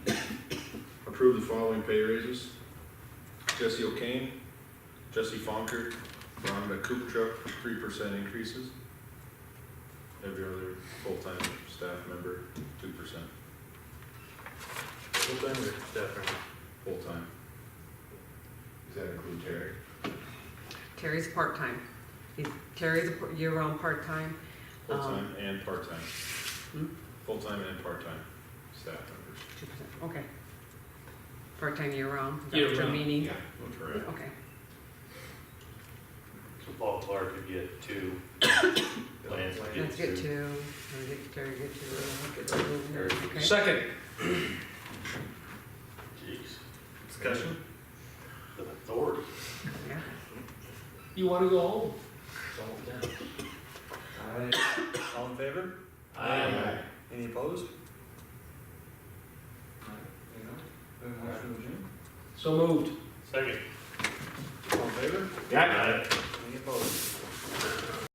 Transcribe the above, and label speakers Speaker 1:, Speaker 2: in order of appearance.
Speaker 1: Approve the following pay raises. Jesse O'Kane, Jesse Fonker, Rhonda Kupchak, three percent increases. Every other full-time staff member, two percent,
Speaker 2: Full-time or staff member?
Speaker 1: full-time.
Speaker 3: Does that include Terry?
Speaker 4: Terry's part-time. He's- Terry's a par- year-round part-time.
Speaker 2: Um,
Speaker 1: Full-time and part-time.
Speaker 4: Hmm?
Speaker 1: Full-time and part-time staff members.
Speaker 4: 2%, Okay. Part-time year-round. is that what you're
Speaker 2: Year-round,
Speaker 4: meaning?
Speaker 1: Correct.
Speaker 4: Okay.
Speaker 2: So Paul Clark could get two. Lance could
Speaker 4: Let's get
Speaker 2: get two.
Speaker 4: to, I'll get Terry, get to, uh, get to, okay.
Speaker 5: Second.
Speaker 2: Jeez,
Speaker 1: Discussion?
Speaker 2: the authority.
Speaker 4: Yeah.
Speaker 5: You want to go home? It's all done.
Speaker 6: All in favor?
Speaker 2: Aye.
Speaker 6: Any opposed?
Speaker 5: So moved.
Speaker 2: Second.
Speaker 6: All in favor?
Speaker 2: Aye.
Speaker 6: Any opposed?